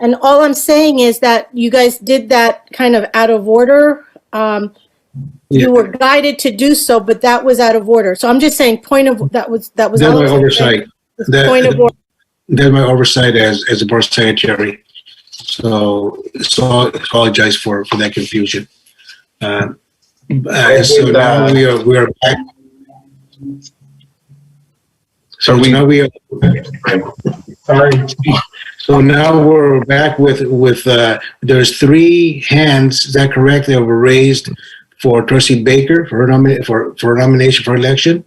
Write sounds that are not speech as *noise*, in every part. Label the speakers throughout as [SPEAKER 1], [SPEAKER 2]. [SPEAKER 1] And all I'm saying is that you guys did that kind of out of order. Um,
[SPEAKER 2] Yeah.
[SPEAKER 1] You were guided to do so, but that was out of order. So I'm just saying, point of, that was, that was.
[SPEAKER 2] That's
[SPEAKER 1] all
[SPEAKER 2] my
[SPEAKER 1] I'm saying.
[SPEAKER 2] oversight.
[SPEAKER 1] It's
[SPEAKER 2] That-
[SPEAKER 1] Point of order.
[SPEAKER 2] That's my oversight as, as a board secretary. So, so I apologize for, for that confusion. Uh, uh, so now we are, we are back. So
[SPEAKER 3] Are we-
[SPEAKER 2] now we are,
[SPEAKER 3] Sorry.
[SPEAKER 2] so now we're back with, with, uh, there's three hands, is that correct, that were raised for trustee Baker for her nomination, for, for her nomination for election?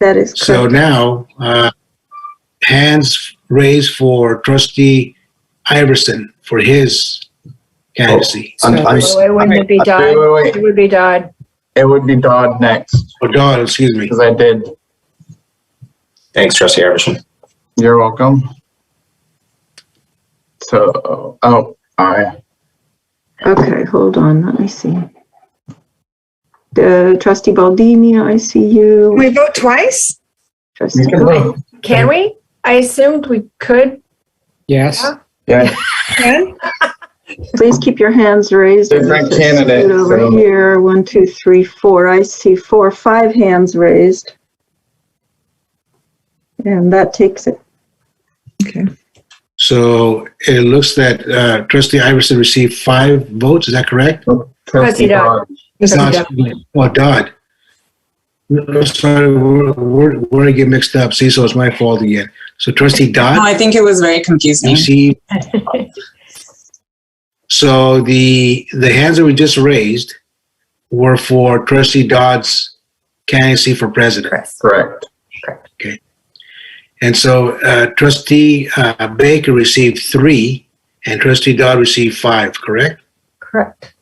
[SPEAKER 4] That is
[SPEAKER 2] So
[SPEAKER 4] correct.
[SPEAKER 2] now, uh, hands raised for trustee Iverson for his candidacy.
[SPEAKER 3] I'm- I'm-
[SPEAKER 5] So it wouldn't be
[SPEAKER 3] Wait,
[SPEAKER 5] Dodd.
[SPEAKER 3] wait,
[SPEAKER 5] It
[SPEAKER 3] wait.
[SPEAKER 5] would be Dodd.
[SPEAKER 3] It would be Dodd next,
[SPEAKER 2] Or Dodd, excuse me.
[SPEAKER 3] because I did.
[SPEAKER 6] Thanks, Trustee Iverson.
[SPEAKER 3] You're welcome. So, oh, I,
[SPEAKER 4] Okay, hold on, let me see. The trustee Baldini, I see you.
[SPEAKER 7] We vote twice?
[SPEAKER 4] Trustee,
[SPEAKER 3] you can vote.
[SPEAKER 5] Can we? I assumed we could.
[SPEAKER 8] Yes.
[SPEAKER 3] Yeah,
[SPEAKER 7] Ken?
[SPEAKER 4] please keep your hands raised.
[SPEAKER 3] Different
[SPEAKER 4] Just scoot
[SPEAKER 3] candidate,
[SPEAKER 4] Over
[SPEAKER 3] so-
[SPEAKER 4] here, one, two, three, four. I see four, five hands raised. And that takes it.
[SPEAKER 2] So it looks that uh, trustee Iverson received five votes, is that correct?
[SPEAKER 5] Trustee Dodd.
[SPEAKER 7] Mr.
[SPEAKER 2] Not-
[SPEAKER 7] Dodd.
[SPEAKER 2] Oh, Dodd. No, Sorry, where- where where I get mixed up, see, so it's my fault again. So trustee
[SPEAKER 9] No,
[SPEAKER 2] Dodd
[SPEAKER 9] I think it was very confusing.
[SPEAKER 2] received. Mm-hmm. *laughs* So the, the hands that we just raised were for trustee Dodd's candidacy for president.
[SPEAKER 3] Correct.
[SPEAKER 2] And so uh, trustee uh, Baker received three and trustee Dodd received five, correct?
[SPEAKER 5] Correct.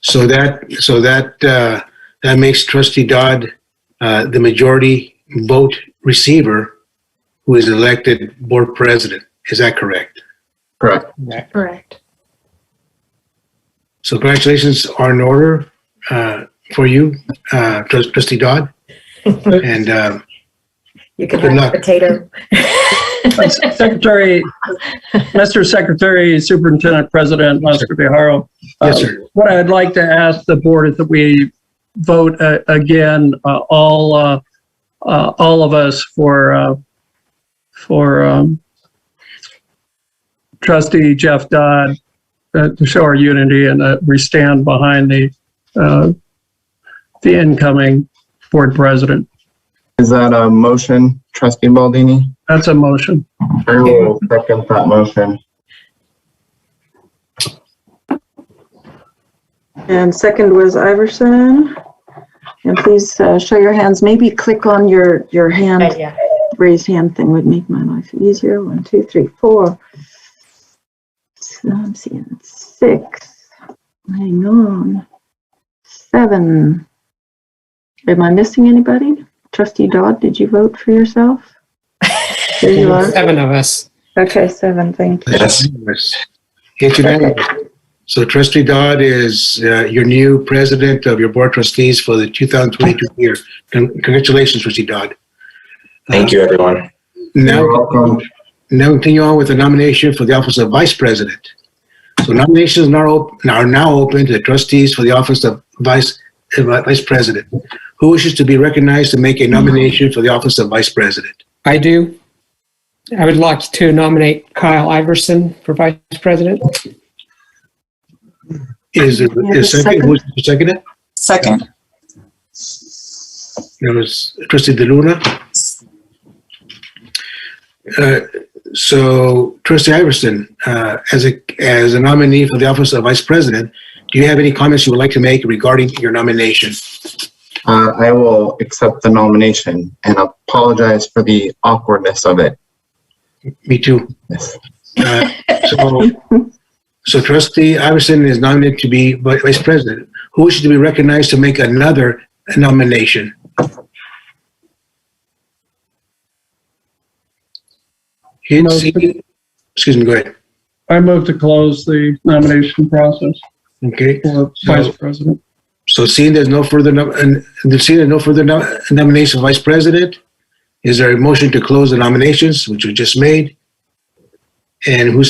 [SPEAKER 2] So that, so that, uh, that makes trustee Dodd uh, the majority vote receiver who is elected board president. Is that correct?
[SPEAKER 3] Correct.
[SPEAKER 5] Correct.
[SPEAKER 2] So congratulations are in order uh, for you, uh, trus- trustee
[SPEAKER 3] *laughs*
[SPEAKER 2] Dodd. And uh,
[SPEAKER 5] You can
[SPEAKER 2] Good
[SPEAKER 5] have
[SPEAKER 2] luck.
[SPEAKER 5] a potato.
[SPEAKER 8] Secretary, Mr. Secretary, Superintendent President Lester Biharo.
[SPEAKER 2] yes,
[SPEAKER 8] uh,
[SPEAKER 2] sir.
[SPEAKER 8] What I'd like to ask the board is that we vote uh, again, uh, all, uh, uh, all of us for, uh, for um, trustee Jeff Dodd, uh, to show our unity and that we stand behind the, uh, the incoming board president.
[SPEAKER 3] Is that a motion, trustee Baldini?
[SPEAKER 8] That's a motion.
[SPEAKER 3] I will second that motion.
[SPEAKER 4] And second was Iverson. And please uh, show your hands. Maybe click on your, your hand
[SPEAKER 5] But yeah.
[SPEAKER 4] raised hand thing would make my life easier. One, two, three, four. So I'm seeing six. Hang on. Seven. Am I missing anybody? Trustee Dodd, did you vote for yourself? There
[SPEAKER 8] *laughs*
[SPEAKER 4] you are.
[SPEAKER 8] Seven of us.
[SPEAKER 4] Okay, seven,
[SPEAKER 3] Uh,
[SPEAKER 4] thank you.
[SPEAKER 6] Yes.
[SPEAKER 2] It's unanimous. So trustee Dodd is uh, your new president of your board trustees for the 2022 year. Con- Congratulations, trustee Dodd. Uh,
[SPEAKER 6] Thank you, everyone.
[SPEAKER 2] Now,
[SPEAKER 3] You're welcome.
[SPEAKER 2] now continue on with the nomination for the office of vice president. So nominations are op- are now open to the trustees for the office of vice, uh, vice president. Who wishes to be recognized to make a nomination for the office of vice president?
[SPEAKER 8] I do. I would like to nominate Kyle Iverson for vice president.
[SPEAKER 2] Is there
[SPEAKER 4] Yeah,
[SPEAKER 2] is
[SPEAKER 4] the
[SPEAKER 2] second,
[SPEAKER 4] second.
[SPEAKER 2] who's the second? it?
[SPEAKER 9] Second,
[SPEAKER 2] There was trustee DeLuna. Uh, So trustee Iverson, uh, as a, as a nominee for the office of vice president, do you have any comments you would like to make regarding your nomination?
[SPEAKER 3] Uh, I will accept the nomination and apologize for the awkwardness of it.
[SPEAKER 2] Me too.
[SPEAKER 3] Yes.
[SPEAKER 2] Uh, So so trustee Iverson is nominated to be vi- vice president. Who wishes to be recognized to make another nomination? Didn't see- Excuse me, go ahead.
[SPEAKER 8] I move to close the nomination process
[SPEAKER 2] Okay.
[SPEAKER 8] for vice president.
[SPEAKER 2] So seeing there's no further, nom- and and seeing there's no further nom- nomination of vice president, is there a motion to close the nominations, which we just made? And who's